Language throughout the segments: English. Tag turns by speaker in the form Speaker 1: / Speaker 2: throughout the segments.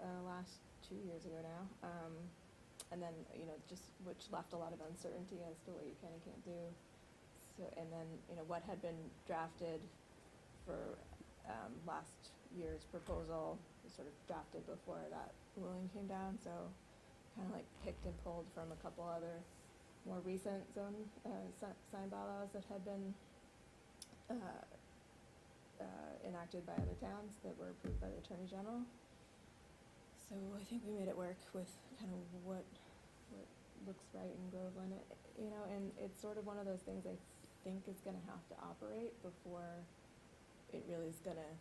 Speaker 1: uh, two years ago now. Um, and then, you know, just, which left a lot of uncertainty as to what you can and can't do. So, and then, you know, what had been drafted for, um, last year's proposal was sort of drafted before that ruling came down, so kind of like picked and pulled from a couple other more recent zone, uh, si- sign bylaws that had been, uh, uh, enacted by other towns that were approved by the Attorney General. So I think we made it work with kind of what, what looks right in Groveland, It- you know, and it's sort of one of those things I think is gonna have to operate before it really is gonna,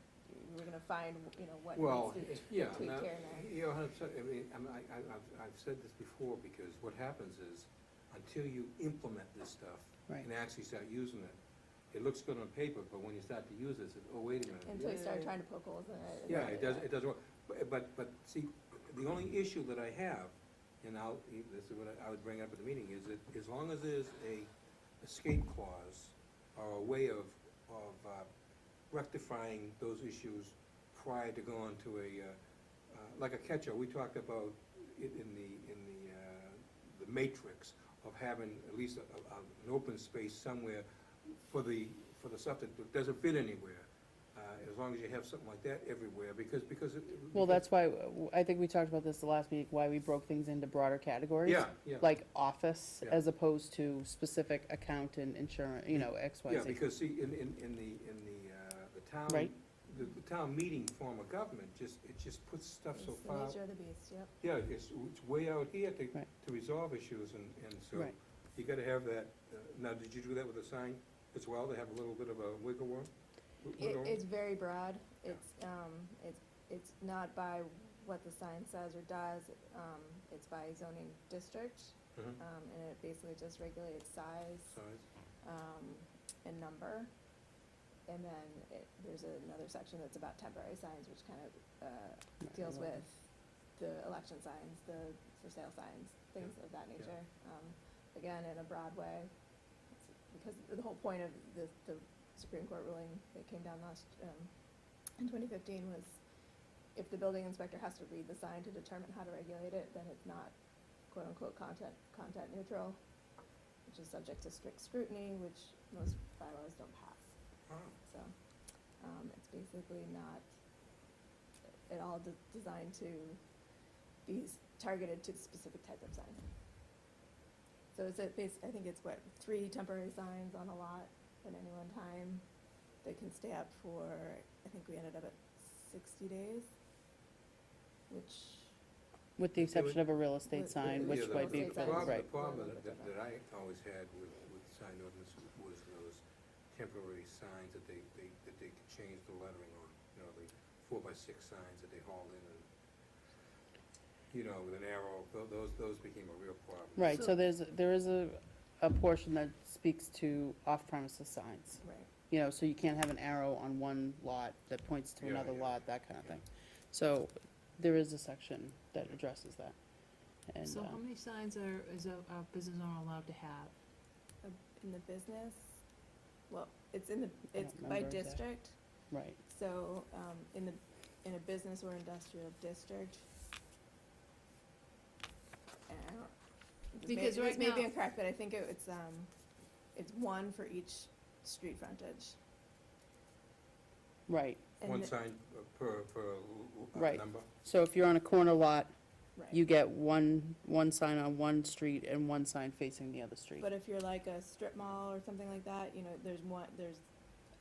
Speaker 1: we're gonna find, you know, what
Speaker 2: Well,
Speaker 1: needs to be
Speaker 2: yeah,
Speaker 1: tweaked
Speaker 2: now,
Speaker 1: here and there.
Speaker 2: you're a hundred percent, I mean, I'm- I, I, I've, I've said this before, because what happens is, until you implement this stuff
Speaker 3: Right.
Speaker 2: and actually start using it, it looks good on paper, but when you start to use it, it's, oh, wait a minute.
Speaker 1: Until you start
Speaker 2: yeah,
Speaker 1: trying to poke holes in it.
Speaker 2: Yeah, it doesn't, it doesn't work, but, but, but see, the only issue that I have, and I'll, this is what I would bring up at the meeting, is that as long as there's a escape clause or a way of, of uh, rectifying those issues prior to going to a, uh, uh, like a catch-all, we talked about it in the, in the, uh, the matrix of having at least a, a, an open space somewhere for the, for the stuff that doesn't fit anywhere. Uh, as long as you have something like that everywhere, because, because. it-
Speaker 3: Well, that's why, w- I think we talked about this the last week, why we broke things into broader categories.
Speaker 2: Yeah, yeah.
Speaker 3: Like office,
Speaker 2: Yeah.
Speaker 3: as opposed to specific accountant, insurance, you know, X, Y,
Speaker 2: Yeah,
Speaker 3: Z.
Speaker 2: because see, in, in, in the, in the, uh, the town.
Speaker 3: Right.
Speaker 2: The, the town meeting form of government, just, it just puts stuff
Speaker 1: It's
Speaker 2: so
Speaker 1: the
Speaker 2: far,
Speaker 1: nature of the beast, yep.
Speaker 2: yeah, it's, it's way out here to,
Speaker 3: Right.
Speaker 2: to resolve issues and, and so.
Speaker 3: Right.
Speaker 2: You gotta have that, uh, now, did you do that with a sign as well, to have a little bit of a wiggle room? Wiggle
Speaker 1: It,
Speaker 2: room?
Speaker 1: it's very broad, it's, um, it's, it's not by what the sign says or does, um, it's by zoning district,
Speaker 2: Mhm.
Speaker 1: um, and it basically just regulates size,
Speaker 2: Size.
Speaker 1: um, and number. And then it, there's another section that's about temporary signs, which kind of, uh, deals with the election signs, the for sale signs, things of that nature. Um, again, in a broad way, it's- because the whole point of the, the Supreme Court ruling that came down last, um, in twenty fifteen was if the building inspector has to read the sign to determine how to regulate it, then it's not quote-unquote content, content neutral, which is subject to strict scrutiny, which most bylaws don't pass.
Speaker 2: Oh,
Speaker 1: So, um, it's basically not at all de- designed to be s- targeted to the specific type of sign. So it's a bas I think it's what, three temporary signs on a lot at any one time that can stay up for, I think we ended up at sixty days, which,
Speaker 3: With the exception of a real estate
Speaker 1: With-
Speaker 3: sign,
Speaker 1: with-
Speaker 2: Yeah,
Speaker 3: which
Speaker 2: the-
Speaker 3: might be,
Speaker 1: Real estate
Speaker 2: the
Speaker 3: exempt,
Speaker 2: problem-
Speaker 1: signs.
Speaker 3: right.
Speaker 2: The problem
Speaker 1: Right.
Speaker 2: that, that- that I always had with, with sign ordinance was those temporary signs that they, they, that they could change the lettering on. You know, the four by six signs that they haul in and, you know, with an arrow, tho- those, those became a real problem.
Speaker 3: Right,
Speaker 1: So-
Speaker 3: so there's, there is a, a portion that speaks to off-premises signs.
Speaker 1: right,
Speaker 3: You know, so you can't have an arrow on one lot that points to
Speaker 2: Yeah,
Speaker 3: another
Speaker 2: yeah.
Speaker 3: lot, that kind of
Speaker 2: Yeah.
Speaker 3: thing. So there is a section that addresses that. And,
Speaker 4: So how
Speaker 3: um,
Speaker 4: many signs are, is a, a business owner allowed to have?
Speaker 1: in the business, well, it's in the,
Speaker 3: I
Speaker 1: it's
Speaker 3: don't
Speaker 1: by
Speaker 3: remember exact-
Speaker 1: district.
Speaker 3: right,
Speaker 1: So, um, in the, in a business or industrial district. and I don't- this may-
Speaker 4: Because right
Speaker 1: This may be
Speaker 4: now-
Speaker 1: incorrect, but I think it- it's, um, it's one for each street frontage.
Speaker 3: right.
Speaker 1: And
Speaker 2: One
Speaker 1: the-
Speaker 2: sign uh, per, per l- l- uh,
Speaker 3: Right.
Speaker 2: number.
Speaker 3: So if you're on a corner lot,
Speaker 1: right.
Speaker 3: you get one, one sign on one street and one sign facing the other street.
Speaker 1: But if you're like a strip mall or something like that, you know, there's one, there's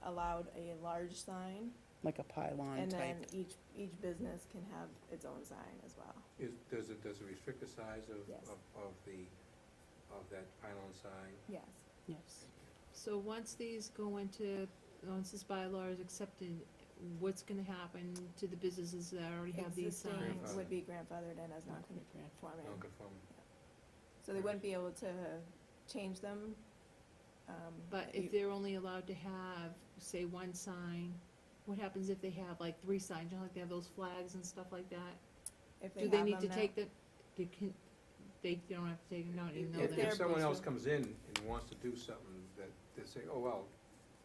Speaker 1: allowed a large sign.
Speaker 3: Like a pylon
Speaker 1: And
Speaker 3: type.
Speaker 1: then each, each business can have its own sign as well.
Speaker 2: Is, does it, does it restrict the size of,
Speaker 1: Yes.
Speaker 2: of, of the, of that pylon sign?
Speaker 1: Yes.
Speaker 3: Yes.
Speaker 4: So once these go into, once this bylaw is accepted, what's gonna happen to the businesses that already have these
Speaker 1: Existing
Speaker 4: signs?
Speaker 1: Would be grandfathered in as non-conforming.
Speaker 2: Non-conforming.
Speaker 1: So they wouldn't be able to change them. um,
Speaker 4: But if
Speaker 1: you-
Speaker 4: they're only allowed to have, say, one sign, what happens if they have like three signs, you know, like they have those flags and stuff like that?
Speaker 1: if
Speaker 4: Do they
Speaker 1: have
Speaker 4: need to
Speaker 1: them
Speaker 4: take the, they can, they don't have to take them out even though
Speaker 2: If, if
Speaker 4: they're,
Speaker 1: they're-
Speaker 2: someone else
Speaker 1: boosters.
Speaker 2: comes in and wants to do something that, they say, oh, well,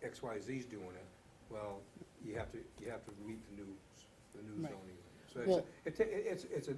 Speaker 2: X, Y, Z's doing it, well, you have to, you have to meet the new, s- the new
Speaker 3: Right.
Speaker 2: zoning. So it's, a-
Speaker 3: Well-
Speaker 2: it ta- it- it's, it's a,